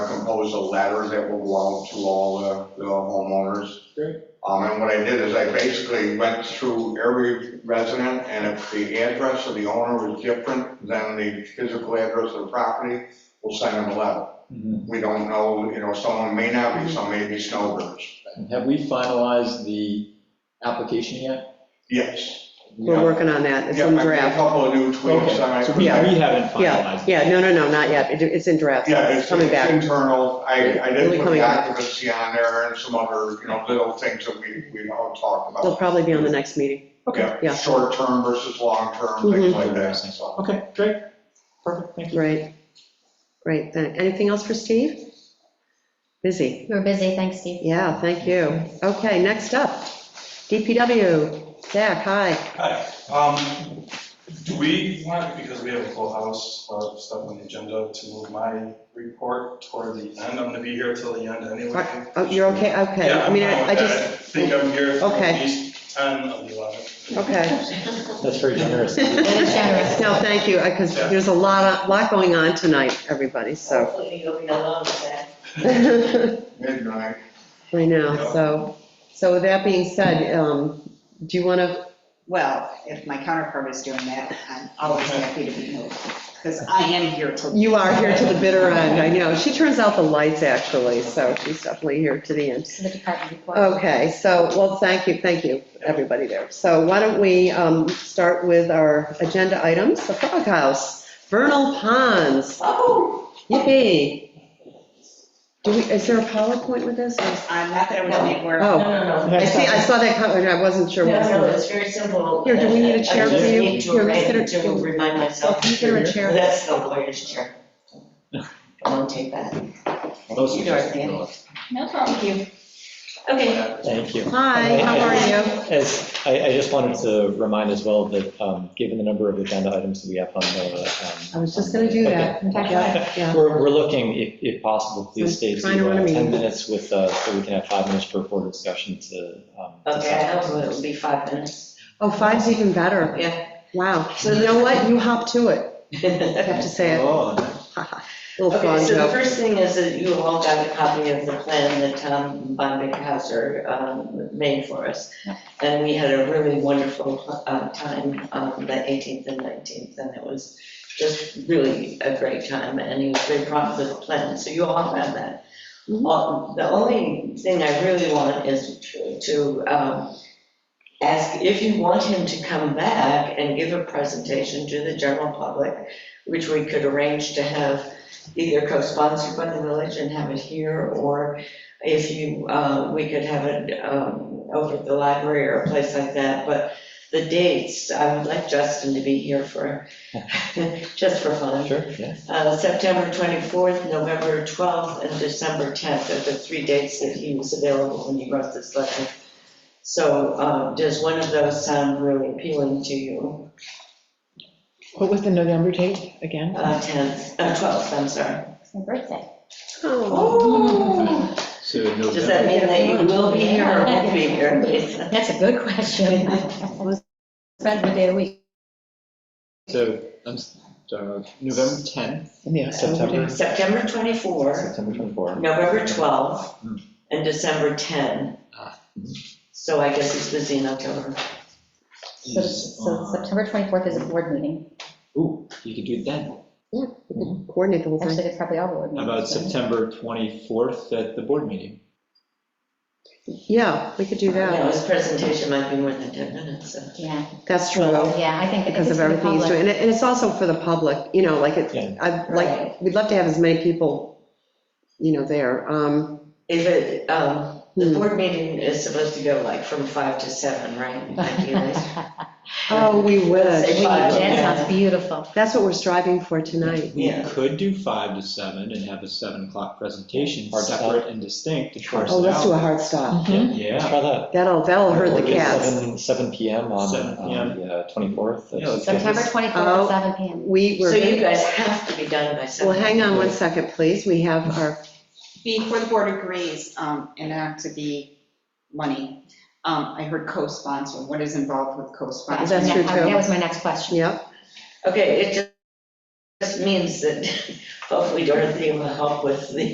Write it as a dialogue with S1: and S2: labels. S1: was a letter that will go out to all the the homeowners.
S2: Great.
S1: Um, and what I did is I basically went through every resident, and if the address of the owner was different than the physical address of the property, we'll send them a letter.
S2: Mhm.
S1: We don't know, you know, someone may not be, some may be snowbirds.
S2: Have we finalized the application yet?
S1: Yes.
S3: We're working on that, it's
S1: Yeah,
S3: in
S1: I made A
S3: draft.
S1: couple of new tweaks,
S2: Okay,
S1: I.
S2: so we we haven't finalized.
S3: Yeah, no, no, no, not yet, It- it's in draft,
S1: Yeah,
S3: it's
S1: it's
S3: coming
S1: it's
S3: back.
S1: internal. I, I
S3: Really
S1: did put
S3: coming
S1: the
S3: back.
S1: occupancy on there and some other, you know, little things that we, we all talked
S3: They'll
S1: about.
S3: probably be on the next meeting. yeah.
S1: Short term versus long term, things like that, so.
S2: Okay, great, perfect, thank you.
S3: Right, right, then, anything else for Steve? Busy,
S4: You were busy, thanks, Steve.
S3: yeah, thank you. Okay, next up, DPW, Zach, hi.
S5: Hi. Um, Do we want, because we have a full house of stuff on the agenda, to move my report toward the end? I'm gonna be here till the end anyway.
S3: Are- Oh, you're okay, okay,
S5: Yeah,
S3: I
S5: I'm
S3: mean,
S5: fine
S3: I
S5: with
S3: I just,
S5: that. I think I'm here through
S3: Okay.
S5: at least 10 of the 11.
S3: okay.
S2: That's very generous.
S4: Very generous.
S3: No, thank you, because
S5: Yeah.
S3: there's a lot, of- lot going on tonight, everybody, so.
S6: Hopefully you'll be alone with that.
S3: I
S1: Midnight.
S3: know, so, so with that being said, um, do you want to,
S6: Well, if my counterpart is doing that, I'm always happy to be moved, because I am here till.
S3: you are here to the bitter end, I know. She turns out the lights, actually, so she's definitely here to the end.
S4: To the department report.
S3: Okay, so, well, thank you, thank you, everybody there. So why don't we um, start with our agenda items, the Frog House, vernal ponds,
S6: Oh,
S3: yippee. Do we, is there a PowerPoint with this? or-
S6: I'm not that it was made work.
S3: Oh.
S7: No, no, no.
S3: I see, I saw that comment, I wasn't sure
S7: No,
S3: what it
S7: no,
S3: was.
S7: it's very simple.
S3: Here, do we need a chair
S7: I just
S3: for you?
S7: need to
S3: Here,
S7: arrange
S3: consider-
S7: To remind
S3: So
S7: myself,
S3: can you get her a chair?
S7: that's the lawyer's chair. I won't take that.
S2: Those
S7: You,
S2: suggestions
S7: Dorothy.
S2: are-
S4: No problem.
S7: Okay,
S2: Thank you.
S3: Hi, how are you?
S2: As, I, I just wanted to remind as well that, um, given the number of agenda items that we have on the. um,
S3: I was just gonna do that.
S2: Okay.
S3: Yeah, yeah.
S2: We're, we're looking, if, if possible, please stay
S3: Trying to
S2: to
S3: run a
S2: uh,
S3: meeting.
S2: 10 minutes with, uh, so we can have five minutes per board discussion to. um,
S7: okay,
S2: discuss.
S7: I hope it'll be five minutes.
S3: Oh, five's even better.
S7: Yeah.
S3: Wow, so you know what, you hop to it, I have to say it.
S2: Oh,
S3: Little
S7: Okay,
S3: frog
S7: so the
S3: joke.
S7: first thing is that you all got a copy of the plan that Tom Bondighauser um, made for us. And we had a really wonderful uh, time, um, the 18th and 19th, and it was just really a great time, and he was very proud of the plan, so you all have that.
S3: Mhm.
S7: Uh, The only thing I really want is to- to um, ask if you want him to come back and give a presentation to the general public, which we could arrange to have either co-sponsored by the village and have it here, or if you, uh, we could have it um, over at the library or a place like that, but the dates, I would like Justin to be here for, just for fun.
S2: sure, yeah.
S7: Uh, September 24th, November 12th, and December 10th are the three dates that he was available when he wrote this letter. So uh, does one of those sound really appealing to you?
S8: What was the November date again?
S7: Uh, 10th, uh, 12th, I'm sorry.
S4: It's my birthday.
S3: Oh,
S7: Oh.
S2: So
S7: Does that mean that you will be here or won't be here? Lisa?
S4: That's a good question. I was spent the day of the week.
S2: So, I'm, s- uh, November 10th,
S8: Yeah,
S2: September,
S7: September 24,
S2: September 24.
S7: November 12, and December 10.
S2: Ah.
S7: So I guess he's busy in October.
S4: So so September 24th is a board meeting.
S2: Ooh, you could do that.
S3: coordinate the whole
S4: Actually,
S3: thing.
S4: it's probably all board
S2: How
S4: meetings.
S2: About
S4: right?
S2: September 24th at the board meeting.
S3: Yeah, we could do
S7: You know,
S3: that,
S7: his presentation might be more than 10 minutes, so.
S4: Yeah,
S3: that's true,
S4: yeah, I think. I think
S3: because
S4: it's
S3: of
S4: for the
S3: everything he's doing.
S4: public.
S3: And it- and it's also for the public, you know, like,
S2: Yeah.
S3: it, I'd like,
S7: Right.
S3: we'd love to have as many people, you know, there. Um,
S7: If it, um, the
S3: Hmm.
S7: board meeting is supposed to go like from five to seven, right? Like you guys.
S3: Mm-hmm. Oh, we
S7: Say
S3: wish,
S7: five.
S4: That sounds beautiful.
S3: that's what we're striving for tonight.
S7: Yeah.
S9: We could do five to seven and have a seven o'clock presentation,
S2: Hard stop.
S9: separate and distinct to parse
S3: Oh, let's do
S9: it
S3: a
S9: out.
S3: hard stop,
S2: Let's
S9: Yeah,
S2: try that.
S3: Mm-hmm. that'll, that'll hurt
S2: Or
S3: the
S2: do
S3: cats.
S2: 7 7 PM on
S9: 7
S2: on the uh, 24th.
S9: Yeah, let's
S2: That's-
S4: September 24th
S3: Oh.
S4: at seven PM.
S3: We
S7: So you
S3: were,
S7: guys have to be done by seven.
S3: well, hang on one second, please, we have our
S6: Before the board agrees, um, and not to be money, um, I heard co-sponsor, what is involved with co-sponsor?
S3: That's true, too.
S4: That was my next question.
S3: Yep,
S7: Okay, it just- just means that hopefully Dorothy will help with the